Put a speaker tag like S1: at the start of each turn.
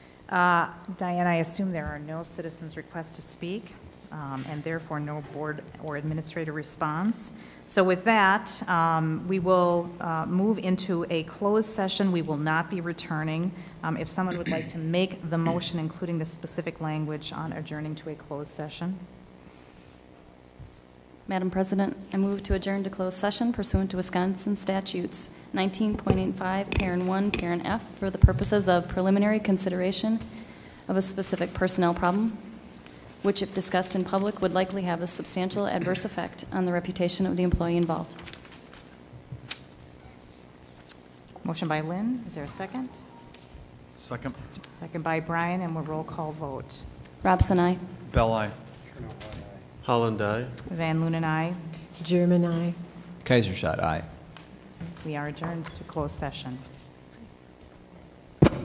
S1: Uh, Diane, I assume there are no citizens' requests to speak, um, and therefore no board or administrator response. So with that, um, we will uh, move into a closed session. We will not be returning. Um, If someone would like to make the motion, including the specific language on adjourning to a closed session.
S2: Madam President, I move to adjourn to closed session pursuant to Wisconsin statutes 19.85, parent 1, parent F, for the purposes of preliminary consideration of a specific personnel problem, which if discussed in public would likely have a substantial adverse effect on the reputation of the employee involved.
S1: Motion by Lynn, is there a second?
S3: Second.
S1: Second by Brian, and we'll roll call vote.
S2: Robson, aye.
S3: Bell, aye.
S4: Holland, aye.
S1: Van Loon and I,
S5: German, I.
S6: Kaisershot, aye.
S1: we are adjourned to closed session.